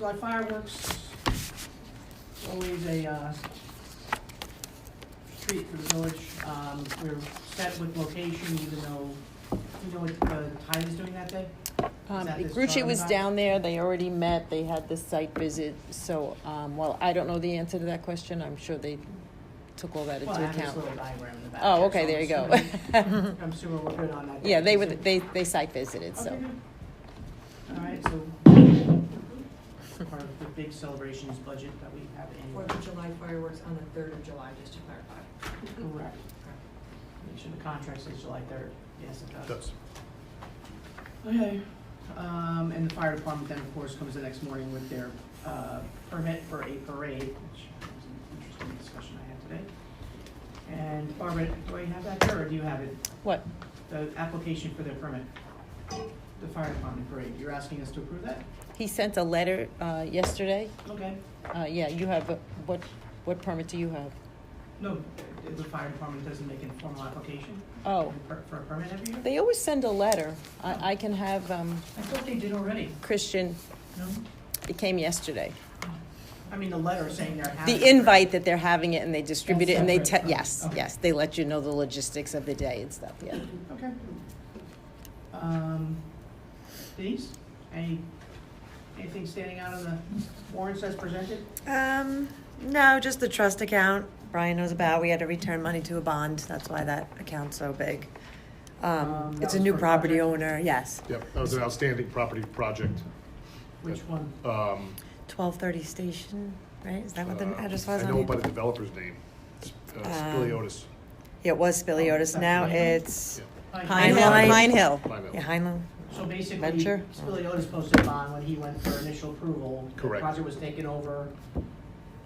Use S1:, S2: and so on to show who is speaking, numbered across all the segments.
S1: July fireworks, always a, uh, treat for the village. Um, we're set with location, even though, you know what, uh, Tide is doing that day?
S2: Um,
S1: that this
S2: Grucci was
S1: Starbucks?
S2: down there, they already met, they had this site visit, so, um, well, I don't know the answer to that question, I'm sure they took all that
S1: Well, I have
S2: into
S1: this
S2: account.
S1: little diagram in the back.
S2: Oh,
S1: here,
S2: okay,
S1: so
S2: there
S1: I'm
S2: you go.
S1: assuming- I'm assuming we're good on that.
S2: Yeah, they were,
S1: So-
S2: they, they site visited, so.
S1: Okay, good. All right, so part of the big celebrations budget that we have
S3: Fourth of
S1: annually.
S3: July fireworks on the third of July, just to clarify.
S1: Correct. Make sure the contract says July third. Yes, it does.
S4: Does.
S1: Okay, um, and the fire department then, of course, comes the next morning with their, uh, permit for a parade, which was an interesting discussion I had today. And Barbara, do I have that here, or do you have it,
S2: What?
S1: the application for their permit? The fire department parade, you're asking us to approve that?
S2: He sent a letter, uh, yesterday,
S1: Okay,
S2: uh, yeah, you have, a- what, what permit do you have?
S1: no, the- the fire department doesn't make a formal application
S2: Oh,
S1: for for a permit every year?
S2: they always send a letter, I, I can have, um,
S1: I thought they did already,
S2: Christian,
S1: no?
S2: it came yesterday.
S1: Ah, I mean, the letter saying they're having.
S2: The invite that they're having it and they distribute it and they,
S1: That's
S2: te-
S1: separate.
S2: yes,
S1: Okay.
S2: yes, they let you know the logistics of the day and stuff, yeah.
S1: Okay. Um, Denise, any, anything standing out of the warrants as presented?
S5: Um, no, just the trust account Brian knows about. We had to return money to a bond. That's why that account's so big.
S1: Um,
S5: Um,
S1: that
S5: it's a
S1: was
S5: new
S1: for a
S5: property
S1: project?
S5: owner, yes.
S4: Yep, that was an outstanding property project.
S1: Which one?
S4: Um,
S5: Twelve thirty station, right? Is that what the
S4: uh,
S5: address was
S4: I
S5: on
S4: know
S5: it?
S4: by the developper's name, It's, uh, Billy
S5: Um,
S4: Otis.
S5: It was Spiliotis.
S1: Oh,
S5: Now
S1: Pine Hill?
S5: it's
S1: Hi.
S5: Pine Hill.
S2: Hill, Pine
S5: Pine
S2: Hill.
S4: Mine out.
S5: yeah, Heinlein.
S1: So basically,
S2: Venture?
S1: Spiliotis posted a bond when he went for initial approval.
S4: Correct.
S1: The project was taken over,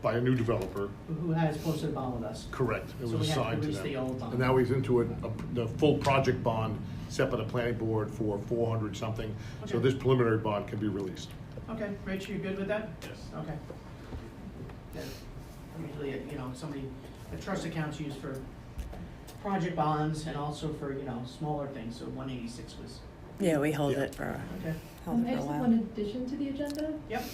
S4: By a new developer,
S1: who has posted a bond with us?
S4: correct. It
S1: So
S4: was
S1: we have to
S4: assigned to
S1: release the old
S4: them.
S1: bond.
S4: And now he's into it, a- the full project bond set by the planning board for four hundred something. So
S1: Okay.
S4: this preliminary bond can be released.
S1: Okay, Rich, you good with that?
S4: Yes.
S1: Okay. Yeah, Usually, you know, somebody, a trust account's used for project bonds and also for, you know, smaller things, so one eighty-six was,
S5: Yeah, we hold
S4: Yeah.
S5: it for
S1: okay,
S5: held
S6: Um, I
S5: it for a
S6: just have one
S5: while.
S6: addition to the agenda.
S1: yep,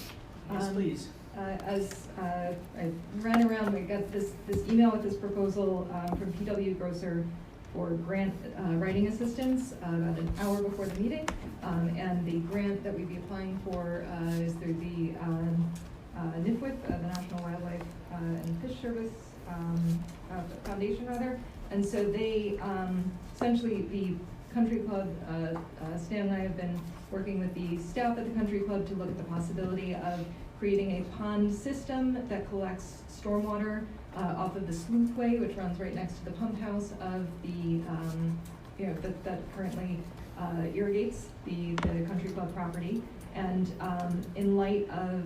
S1: yes,
S6: Um,
S1: please.
S6: Uh, As uh, I ran around, we got this, this email with this proposal um, from PW Grocer for grant uh, writing assistance uh, about an hour before the meeting. Um, And the grant that we'd be applying for uh, is through the um, uh, NIFWIP, uh, the National Wildlife uh, and Fish Service um, uh, Foundation, rather. And so they, um, essentially, the country club, uh, uh, Stan and I have been working with the staff at the country club to look at the possibility of creating a pond system that collects stormwater uh, off of the sleuthway, which runs right next to the pump house of the, um, you know, that, that currently uh, irrigates the, the country club property. And um, in light of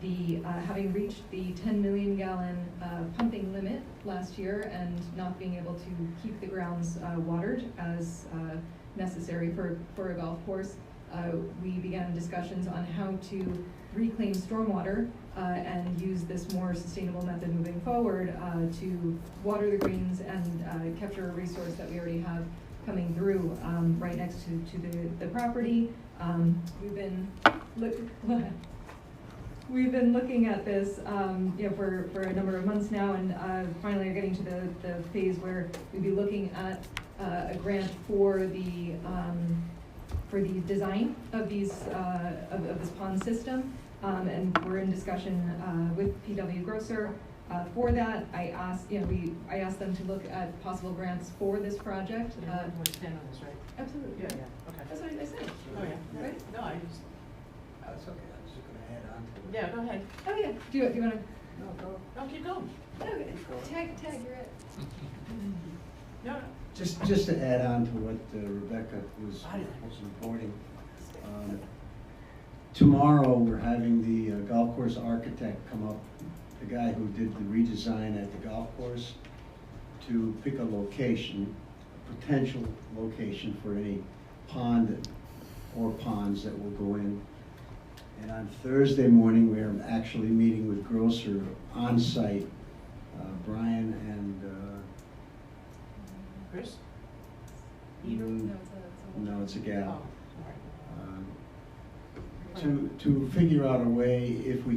S6: the, uh, having reached the 10 million gallon uh, pumping limit last year and not being able to keep the grounds uh, watered as uh, necessary for, for a golf course, uh, we began discussions on how to reclaim stormwater uh, and use this more sustainable method moving forward uh, to water the greens and uh, capture a resource that we already have coming through um, right next to, to the, the property. Um, We've been, look, We've been looking at this, um, you know, for, for a number of months now, and, uh, finally are getting to the, the phase where we'd be looking at, uh, a grant for the, um, for the design of these, uh, of, of this pond system. Um, and we're in discussion, uh, with PW Grocer, uh, for that. I asked, you know, we, I asked them to look at possible grants for this project, uh,
S1: Everyone stand on this, right?
S6: absolutely.
S1: Yeah, yeah, okay.
S6: That's what I said.
S1: Oh, yeah.
S6: Right?
S1: No, I just,
S7: That's okay, I'm just gonna add on to it.
S1: yeah, go ahead.
S6: Oh, yeah. Do you, do you wanna,
S7: No, go.
S1: No, keep going.
S6: okay, tag, tag, you're it.
S1: No, no.
S7: Just, just to add on to what uh, Rebecca was,
S1: I didn't-
S7: was reporting. um, Tomorrow, we're having the uh, golf course architect come up, the guy who did the redesign at the golf course, to pick a location, a potential location for any pond or ponds that will go in. And on Thursday morning, we are actually meeting with Grocer on site. Uh, Brian and uh,
S1: Chris?
S7: Mm,
S6: it's a- it's a-
S7: No, it's a
S1: Oh,
S7: gal.
S1: all right.
S7: Um, to, to figure out a way, if we